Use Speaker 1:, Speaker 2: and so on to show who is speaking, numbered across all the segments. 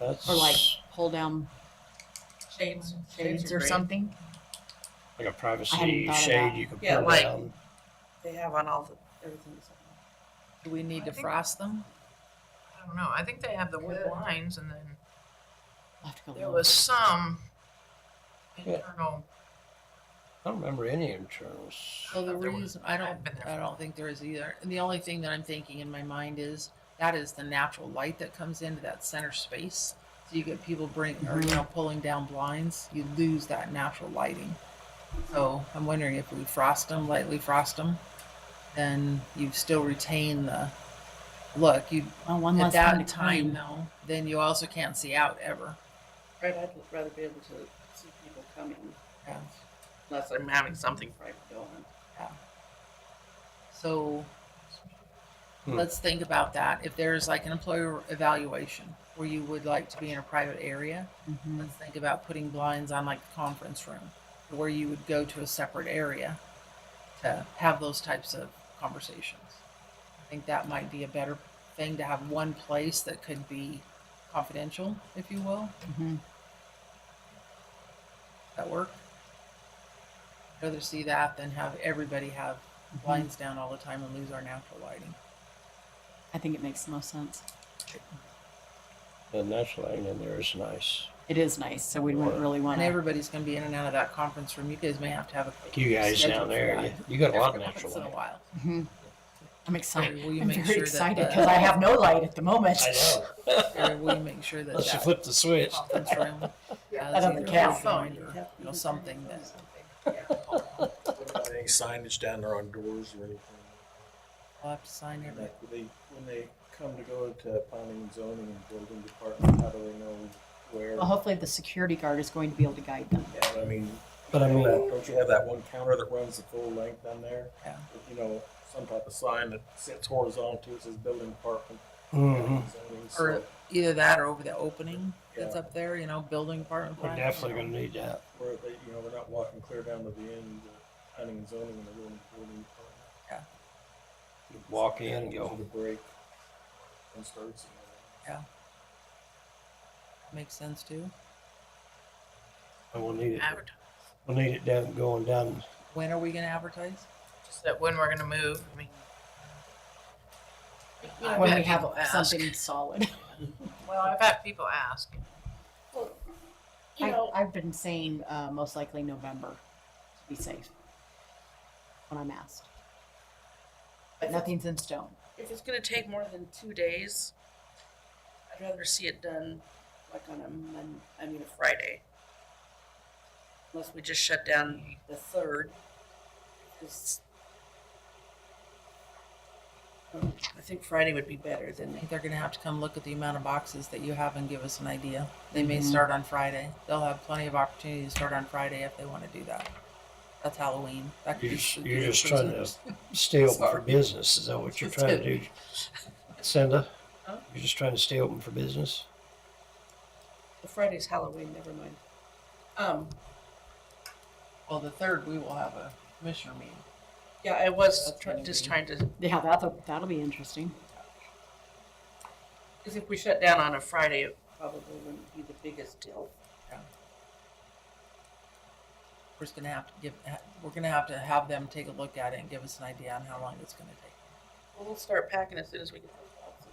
Speaker 1: That's
Speaker 2: or like pull down
Speaker 3: Shades.
Speaker 2: shades or something.
Speaker 1: like a
Speaker 2: I hadn't
Speaker 1: privacy
Speaker 2: thought of
Speaker 1: shade
Speaker 2: that.
Speaker 1: you can
Speaker 3: Yeah,
Speaker 1: pull
Speaker 3: like-
Speaker 1: down.
Speaker 3: They have on all the, everything.
Speaker 2: Do we need to
Speaker 4: I think-
Speaker 2: frost them?
Speaker 4: I don't know, I think they have the wood
Speaker 3: Good.
Speaker 4: lines and then
Speaker 2: I'll have to go
Speaker 4: there
Speaker 2: look.
Speaker 4: was some
Speaker 1: Yeah.
Speaker 4: internal,
Speaker 1: I don't remember any internals.
Speaker 2: So the
Speaker 4: There was-
Speaker 2: reason, I don't,
Speaker 4: I've been there
Speaker 2: I
Speaker 4: for-
Speaker 2: don't think there is either. And the only thing that I'm thinking in my mind is that is the natural light that comes into that center space. So you get people bring, or
Speaker 4: Mm-hmm.
Speaker 2: you know, pulling down blinds, you lose that natural lighting. So I'm wondering if we frost them, lightly frost them, then you still retain the look. You,
Speaker 5: Well, one
Speaker 2: at
Speaker 5: less time to
Speaker 2: that
Speaker 5: clean.
Speaker 2: time though, then you also can't see out ever.
Speaker 3: Right, I'd rather be able to see people coming
Speaker 2: Yeah.
Speaker 3: unless I'm having something private going on.
Speaker 2: So
Speaker 1: Hmm.
Speaker 2: let's think about that. If there's like an employer evaluation where you would like to be in a private area,
Speaker 5: Mhm.
Speaker 2: let's think about putting blinds on like the conference room where you would go to a separate area to have those types of conversations. I think that might be a better thing to have one place that could be confidential, if you will.
Speaker 5: Mhm.
Speaker 2: That work? I'd Rather see that than have everybody have
Speaker 5: mm-hmm.
Speaker 2: blinds down all the time and lose our natural lighting.
Speaker 5: I think it makes the most sense.
Speaker 1: The natural lighting in there is nice.
Speaker 5: It is nice, so we wouldn't really want
Speaker 2: And
Speaker 5: to.
Speaker 2: everybody's gonna be in and out of that conference room. You guys may have to have a.
Speaker 1: You guys
Speaker 2: schedule
Speaker 1: down
Speaker 2: for
Speaker 1: there,
Speaker 2: that.
Speaker 1: you, you got a lot of
Speaker 2: Every
Speaker 1: natural
Speaker 2: Once in a
Speaker 1: light.
Speaker 2: while.
Speaker 5: Mm-hmm. I'm
Speaker 2: Mary,
Speaker 5: excited.
Speaker 2: will you
Speaker 5: I'm
Speaker 2: make
Speaker 5: very
Speaker 2: sure that
Speaker 5: excited
Speaker 2: the-
Speaker 5: because I have no light at the moment.
Speaker 1: I know.
Speaker 2: Mary, will you make sure that
Speaker 1: Unless you
Speaker 2: that
Speaker 1: flip the switch.
Speaker 2: conference room has
Speaker 5: Out on
Speaker 2: either
Speaker 5: the
Speaker 2: a
Speaker 5: couch.
Speaker 2: sign or, you know, something that,
Speaker 6: What about Any signage down there on doors or anything?
Speaker 2: I'll have to sign here, but
Speaker 6: Like, when they, when they come to go to planning and zoning and building department, how do they know where?
Speaker 2: Uh-huh.
Speaker 5: Well, hopefully the security guard is going to be able to guide them.
Speaker 6: Yeah, but I mean.
Speaker 1: But I mean-
Speaker 6: Don't you have that one counter that runs the full length down there?
Speaker 2: Yeah.
Speaker 6: With, You know, some type of sign that sits horizontal, it says building department.
Speaker 1: Mm-hmm.
Speaker 6: zoning, so-
Speaker 2: or either that or over the opening that's
Speaker 6: Yeah.
Speaker 2: up there, you know, building department.
Speaker 1: We're
Speaker 2: plan, you
Speaker 1: definitely
Speaker 2: know.
Speaker 1: gonna need that.
Speaker 6: Where they, you know, we're not walking clear down to the end of planning and zoning and the building, building department.
Speaker 1: Walk in and
Speaker 6: Gives
Speaker 1: go.
Speaker 6: you The break and starts. you know.
Speaker 2: Makes sense too.
Speaker 1: And we'll need it.
Speaker 4: advert-
Speaker 1: We'll need it down, going down.
Speaker 2: When are we gonna advertise?
Speaker 4: just that when we're gonna move, I mean. I've
Speaker 5: When
Speaker 4: had
Speaker 5: we have
Speaker 4: people ask-
Speaker 5: something solid.
Speaker 4: Well, I've had people ask,
Speaker 3: You
Speaker 5: I,
Speaker 3: know-
Speaker 5: I've been saying, uh, most likely November to be safe when I'm asked. But nothing's in stone.
Speaker 3: If it's gonna take more than two days, I'd rather see it done like on a Mon, I mean a Friday. Unless we just shut down the third. 'cause- I think Friday would be better
Speaker 2: I
Speaker 3: than,
Speaker 2: think they're gonna have to come look at the amount of boxes that you have and give us an idea. They may
Speaker 5: Mhm.
Speaker 2: start on Friday. They'll have plenty of opportunity to start on Friday if they wanna do that. That's Halloween. That could
Speaker 1: You're
Speaker 2: be
Speaker 1: just,
Speaker 2: spooky
Speaker 1: you're
Speaker 2: for
Speaker 1: just
Speaker 2: some
Speaker 1: trying to stay open for
Speaker 2: Sorry.
Speaker 1: business. Is that what you're trying to do? Cinda?
Speaker 3: Huh?
Speaker 1: You're just trying to stay open for business?
Speaker 3: the Friday's Halloween, never mind. Um,
Speaker 2: Well, the third, we will have a commissioner meeting.
Speaker 3: yeah, I was
Speaker 2: That's
Speaker 3: try-
Speaker 2: gonna
Speaker 3: just
Speaker 2: be-
Speaker 3: trying to,
Speaker 5: Yeah, that'll, that'll be interesting.
Speaker 3: cause if we shut down on a Friday, it probably wouldn't be the biggest deal.
Speaker 2: We're just gonna have to give, ha- we're gonna have to have them take a look at it and give us an idea on how long it's gonna take.
Speaker 3: Well, We'll start packing as soon as we get those boxes.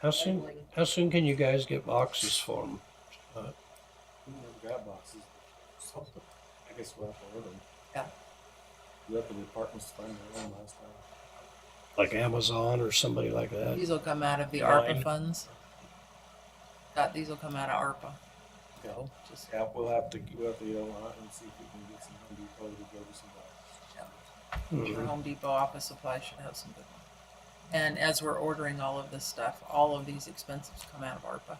Speaker 1: How soon,
Speaker 3: Labeling.
Speaker 1: how soon can you guys get boxes for 'em?
Speaker 6: We never got boxes. So I guess we'll have to order them.
Speaker 2: Yeah.
Speaker 6: Let the departments find their own last time.
Speaker 1: Like Amazon or somebody like that?
Speaker 2: These will come out of the
Speaker 1: Fine.
Speaker 2: ARPA funds. That, these will come out of ARPA.
Speaker 6: Go.
Speaker 2: Just-
Speaker 6: Yeah, we'll have to, we'll have to go out and see if we can get some Home Depot to go to some boxes.
Speaker 2: Your
Speaker 1: Mhm.
Speaker 2: Home Depot office supply should have some good ones. And as we're ordering all of this stuff, all of these expenses come out of ARPA.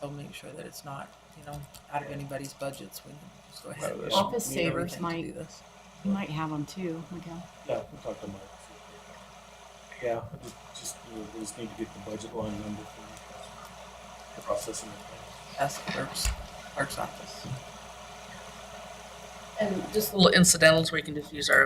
Speaker 2: So make sure that it's not, you know, out of anybody's budgets. We can just go ahead. and
Speaker 1: Right,
Speaker 2: do
Speaker 5: Office
Speaker 6: we have
Speaker 5: savers
Speaker 2: everything to do
Speaker 5: might,
Speaker 2: this.
Speaker 5: you might have them too, Miguel.
Speaker 6: Yeah, we'll talk to Mike. see if they- Yeah, we just, we just need to get the budget line number for the processing.
Speaker 2: That's the clerk's, clerk's office.
Speaker 3: And just little incidentals where you can just use our